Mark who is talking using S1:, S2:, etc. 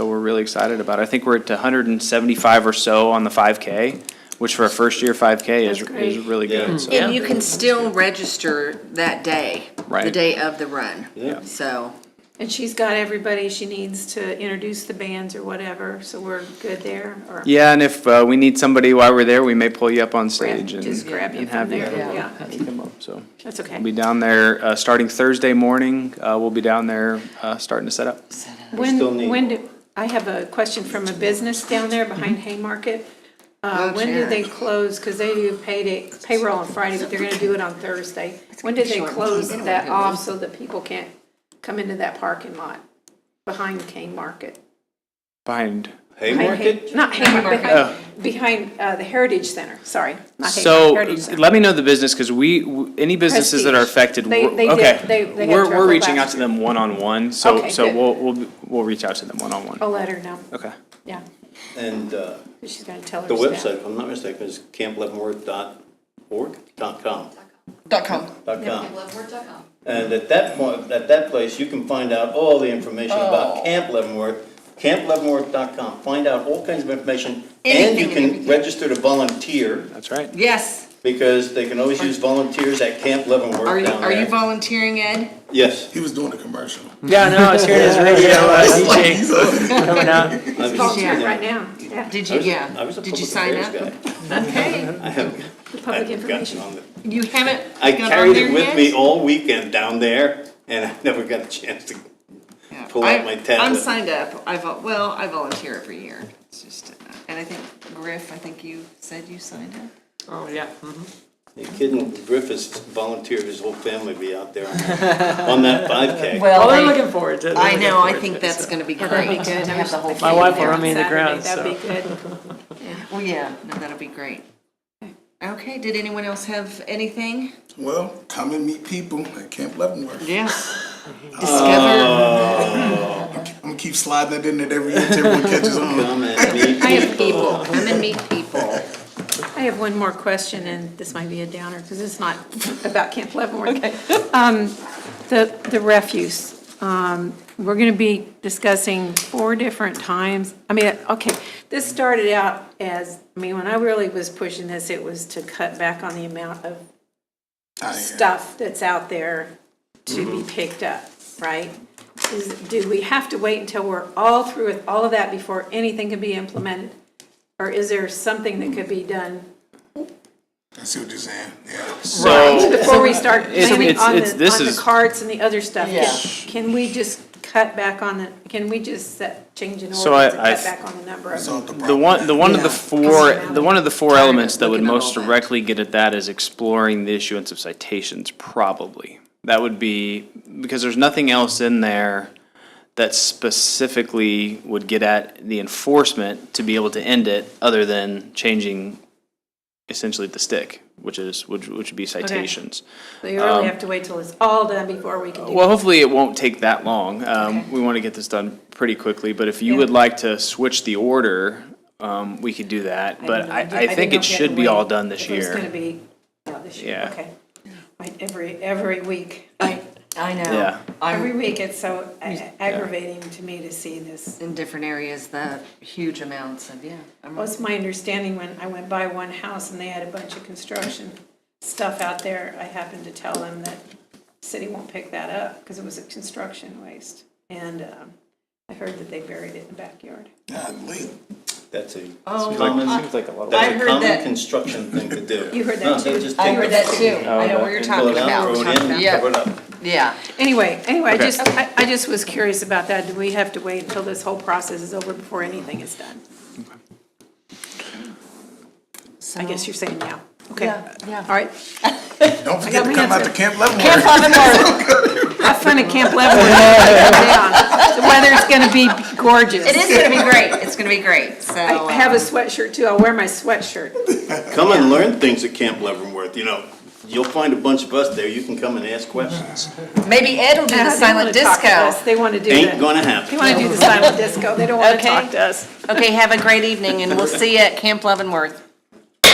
S1: really excited about. I think we're at 175 or so on the 5K, which for a first-year 5K is,
S2: That's
S1: is
S2: great.
S1: really
S3: Yeah.
S1: good. So
S4: And you can still register that day, the
S1: Right.
S4: day of the run.
S3: Yeah.
S4: So,
S2: And she's got everybody she needs to introduce the bands or whatever, so we're good there, or
S1: Yeah, and if uh, we need somebody while we're there, we may pull you up on stage and
S2: just grab you
S1: and have
S2: from
S1: you
S2: there, yeah,
S1: have you come up, so.
S2: that's okay.
S1: We'll be down there, uh, starting Thursday morning, uh, we'll be down there, uh, starting to set up.
S3: still
S2: When,
S3: need-
S2: when do, I have a question from a business down there behind Haymarket. Uh,
S4: Oh,
S2: when do they
S4: Jared.
S2: close, because they do payday, payroll on Friday, but they're gonna do it on Thursday. When do they
S4: short.
S2: close
S4: They don't
S2: that
S4: want to
S2: off so that people can't come into that parking lot behind Haymarket?
S1: Behind,
S2: Behind Hay-
S3: Haymarket?
S2: Not Haymarket, behind, behind, uh, the Heritage Center, sorry, not
S1: so,
S2: Haymarket, Heritage Center.
S1: let me know the business, because we, w- any businesses that are
S2: Prestige.
S1: affected,
S2: They-
S1: we're-
S2: they did- they-
S1: okay.
S2: they had
S1: We're, we're
S2: trouble
S1: reaching out
S2: last
S1: to them one-on-one, so,
S2: Okay,
S1: so
S2: good. Oh.
S1: we'll, we'll, we'll reach out to them one-on-one.
S2: I'll let her know,
S1: Okay,
S2: yeah,
S3: And uh,
S2: she's gonna tell her
S3: the
S2: staff.
S3: website, if I'm not mistaken, is campleavenworth.org, dot com,
S4: dot com.
S3: dot com.
S5: Leavenworth.com.
S3: And at that point, at that place, you can find out all the information
S4: Oh.
S3: about Camp Leavenworth, campleavenworth.com. Find out all kinds of information, and you
S4: Anything and
S3: can
S4: everything.
S3: register to volunteer,
S1: that's right.
S4: Yes.
S3: because they can always use volunteers at Camp Leavenworth
S4: Are you,
S3: down
S4: are you
S3: there.
S4: volunteering, Ed?
S3: Yes.
S6: He was doing a commercial.
S1: Yeah, no, I was hearing his radio, uh, DJ
S6: He's a-
S1: coming out.
S3: I was-
S4: volunteering
S3: yeah.
S2: Right now, yeah,
S4: Did
S3: I
S4: you,
S3: was- I
S4: yeah.
S3: was a
S4: Did you
S3: public
S4: sign
S3: affairs
S4: up?
S3: guy.
S4: Okay.
S3: I haven't, I
S2: public
S3: haven't gotten
S2: information.
S3: on the,
S4: You haven't
S3: I
S4: gone on
S3: carried it
S4: there
S3: with
S4: yet?
S3: me all weekend down there, and I never got a chance to
S4: Yeah.
S3: pull out
S4: I-
S3: my tablet.
S4: I'm signed up. I, vol- well, I volunteer every year. It's just, uh, and I think Griff, I think you said you signed up.
S7: Oh, yeah.
S4: Mm-hmm.
S3: The kid in Griffiths volunteered his whole family to be out there on that- on that 5K.
S7: Well, they're
S4: I-
S7: looking forward to it. They're
S4: I
S7: looking
S4: know, I
S7: forward to
S4: think
S7: it,
S4: that's
S7: so.
S4: gonna be
S2: that'd be
S4: great
S2: good.
S4: to have the whole
S7: My
S4: family
S7: wife will
S4: there.
S7: run me in the
S2: Saturday,
S7: ground, so.
S2: That'd be good.
S4: Well, yeah, no, that'll be great. Okay, did anyone else have anything?
S6: Well, come and meet people at Camp Leavenworth.
S4: Yes.
S3: Oh.
S4: Discover
S6: I'm gonna keep sliding it in there every year until everyone catches on.
S3: Come and meet
S4: I have
S3: people.
S4: people. Come and meet people.
S2: I have one more question, and this might be a downer, because it's not about Camp Leavenworth. Um, The, the refuse, um, we're going to be discussing four different times. I mean, okay, this started out as, I mean, when I really was pushing this, it was to cut back on the amount of
S6: I am.
S2: stuff that's out there to be picked up, right? Is- Do we have to wait until we're all through with all of that before anything can be implemented? Or is there something that could be done
S6: I see what you're saying, yeah.
S1: So,
S2: before we start
S1: It's-
S2: planning
S1: it's-
S2: on the,
S1: it's- this
S2: on the
S1: is-
S2: carts and the other stuff? Can-
S7: Yeah.
S2: Can we just cut back on the, can we just set, change an
S1: So I-
S2: ordinance and
S1: I
S2: cut
S1: th-
S2: back on the number of?
S6: Solve the
S1: the
S6: problem.
S1: one, the one of the
S4: Yeah.
S1: four, the one of the four
S4: Tired of
S1: elements that would
S4: looking at
S1: most
S4: all that.
S1: directly get at that is exploring the issuance of citations, probably. That would be, because there's nothing else in there that specifically would get at the enforcement to be able to end it, other than changing essentially the stick, which is, which, which would be citations.
S2: So you really have to wait till it's all done before we can do
S1: um, Well, hopefully it won't take that long. Um, we want to get this done pretty quickly, but if you would like to switch the order, um, we could do that. But I, I think it should be all done this
S2: It's gonna
S1: year.
S2: be, out this year,
S1: Yeah.
S2: okay. Right, every, every week.
S4: I, I know.
S1: Yeah.
S2: Every
S4: I'm
S2: week, it's so a- aggravating to me to see this.
S4: in different areas, the huge amounts of, yeah. I'm-
S2: What's my understanding when I went by one house and they had a bunch of construction stuff out there, I happened to tell them that city won't pick that up because it was a construction waste. And um, I heard that they buried it in the backyard.
S6: Golly.
S3: That's a
S4: Oh,
S3: common,
S1: Seems like a lot of.
S4: I
S3: that's a
S4: heard
S3: common
S4: that-
S3: construction thing to do.
S2: You heard that
S3: No, they
S2: too?
S3: just
S4: I
S3: take
S4: heard
S3: the
S4: that
S3: fucking
S4: too. I know what you're
S3: pull
S4: talking
S3: it out,
S4: about.
S3: throw it in,
S4: Yeah.
S3: cover it up.
S4: Yeah.
S2: Anyway, anyway, I
S1: Okay.
S2: just, I I just was curious about that. Do we have to wait until this whole process is over before anything is done? I guess you're saying yeah. Okay.
S4: Yeah, yeah.
S2: All right.
S6: Don't
S2: got
S6: forget to
S2: my
S6: come out
S2: answer.
S6: to Camp Leavenworth.
S2: Camp Leavenworth. Have fun at Camp Leavenworth. The weather's gonna be gorgeous.
S4: It is gonna be great. It's gonna be great, so. uh,
S2: I have a sweatshirt too. I'll wear my sweatshirt.
S3: Come and learn things at Camp Leavenworth, you know. You'll find a bunch of us there, you can come and ask questions.
S4: Maybe Ed will do the silent disco.
S2: They wanna do
S3: Ain't
S2: the,
S3: gonna
S2: they
S3: happen.
S2: wanna do the silent disco. They don't wanna
S4: Okay.
S2: talk to us.
S4: Okay, have a great evening and we'll see you at Camp Leavenworth.